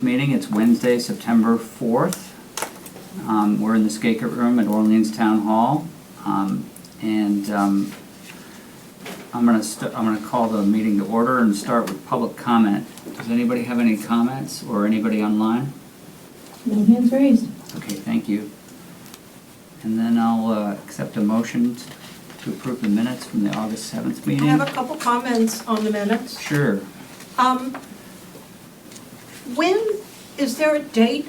meeting. It's Wednesday, September 4th. Um, We're in the Skaker Room at Orleans Town Hall. Um, And um, I'm gonna, st- I'm gonna call the meeting to order and start with public comment. Does anybody have any comments or anybody online? No hands raised. Okay, thank you. And then I'll uh, accept a motion t- to approve the minutes from the August 7th I meeting. have a Mm-hmm. couple comments on the minutes. Sure. Um, When, is there a date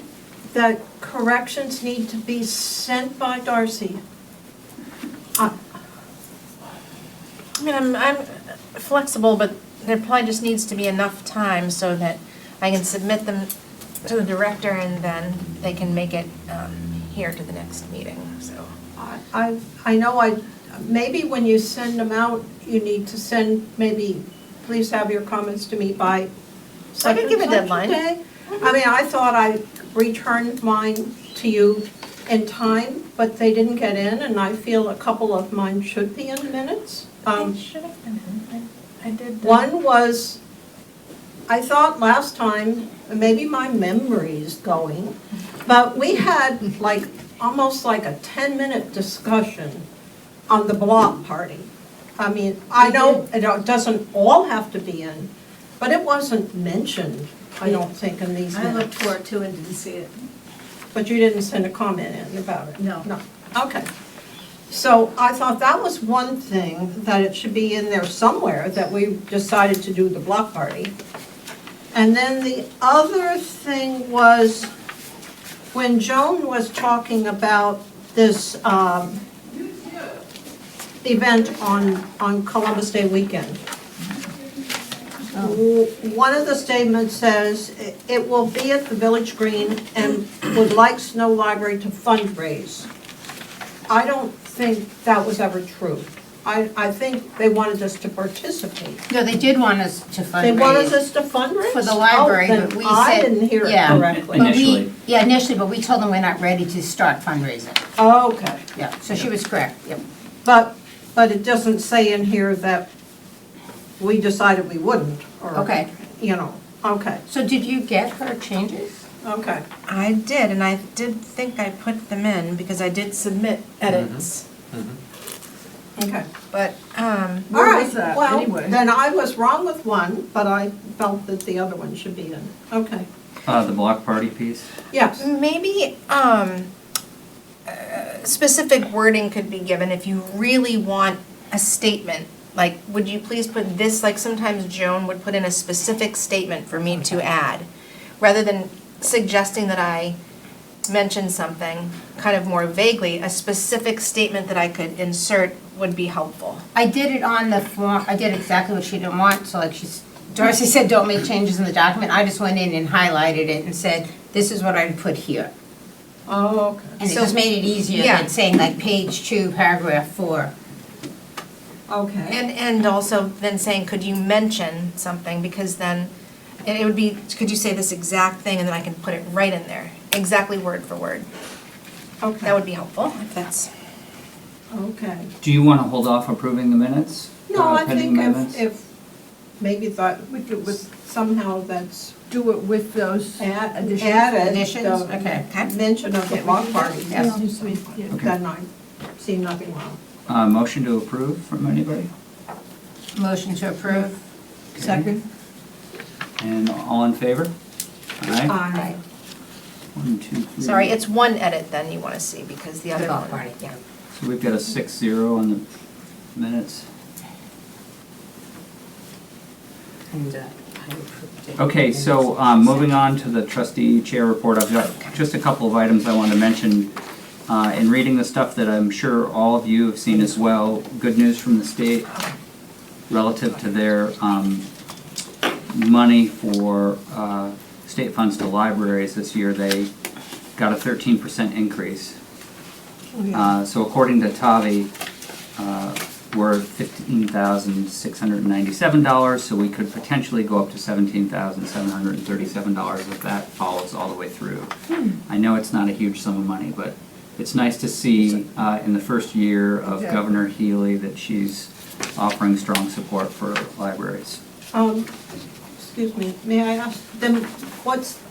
that corrections need to be sent by Darcy? Uh, I mean, I'm, I'm flexible, but there probably just needs to be enough time so that I can submit them to the director and then they can make it um, here to the next meeting, so. I, I I know I, maybe when you send them out, you need to send, maybe, please have your comments to me by I such could and give a such a deadline. day. I mean, I thought I returned mine to you in time, but they didn't get in, and I feel a couple of mine should be in minutes. Um, It should have been, I I did. the- One was, I thought last time, maybe my memory is going, but we had like, almost like a 10-minute discussion on the block party. I mean, I know it doesn't all have to be in, but it wasn't mentioned, I don't think, in these I looked minutes. for it too and didn't see it. But you didn't send a comment in about it? No. No, okay. So I thought that was one thing, that it should be in there somewhere, that we decided to do the block party. And then the other thing was, when Joan was talking about this um, event on, on Columbus Day weekend. W- Um, One of the statements says, "It- "It will be at the Village Green and would like Snow Library to fundraise." I don't think that was ever true. I, I think they wanted us to participate. No, they did want us to fundraise. They wanted us to fundraise? For the library, Oh, then but we I said- didn't hear it yeah. correctly. But we- Initially. Yeah, initially, but we told them we're not ready to start fundraising. Okay, Yeah, so she was correct, yep. but, but it doesn't say in here that we decided we wouldn't, or. Okay. You know, okay, So did you get her changes? okay. I did, and I did think I put them in because I did submit edits. Okay. But, um, All Where right, was that well, anyway? then I was wrong with one, but I felt that the other one should be in. Okay, Uh, The block party piece? yes, maybe, um, uh, specific wording could be given if you really want a statement. Like, would you please put this, like sometimes Joan would put in a specific statement for me to add, rather than suggesting that I mention something kind of more vaguely, a specific statement that I could insert would be helpful. I did it on the form, I did exactly what she didn't want, so like she's, Darcy said, don't make changes in the document. I just went in and highlighted it and said, this is what I'd put here. oh, okay, And it So- just made it easier Yeah. than saying like page two, paragraph four. okay. And, and also then saying, could you mention something, because then, and it would be, could you say this exact thing, and then I can put it right in there, exactly word for word. Okay. That would be helpful, if that's. Okay. Do you want to hold off approving the minutes? No, Uh, I pending think if, amendments? if, maybe thought, we could with, somehow that's Do it with those add- additions. added. Additions, the okay. Mention of the block party, Yes. then I see nothing wrong. Uh, Motion to approve from anybody? Motion to approve. Okay. And all in favor? Aye. Aye. One, two, three. Sorry, it's one edit then you want to see, because the The other one. golf party. yeah. So we've got a six zero on the minutes. And uh, I approved it. Okay, so um, moving on to the trustee chair report, I've got just a couple of items I want to mention. Uh, In reading the stuff that I'm sure all of you have seen as well, good news from the state relative to their um, money for uh, state funds to libraries this year, they got a 13% increase. Uh, So according to Tavi, uh, we're fifteen thousand six hundred and ninety-seven dollars, so we could potentially go up to seventeen thousand seven hundred and thirty-seven dollars if that follows all the way through. I know it's not a huge sum of money, but it's nice to see uh, in the first year of Yeah. Governor Healy that she's offering strong support for libraries. Um, excuse me, may I ask, then what's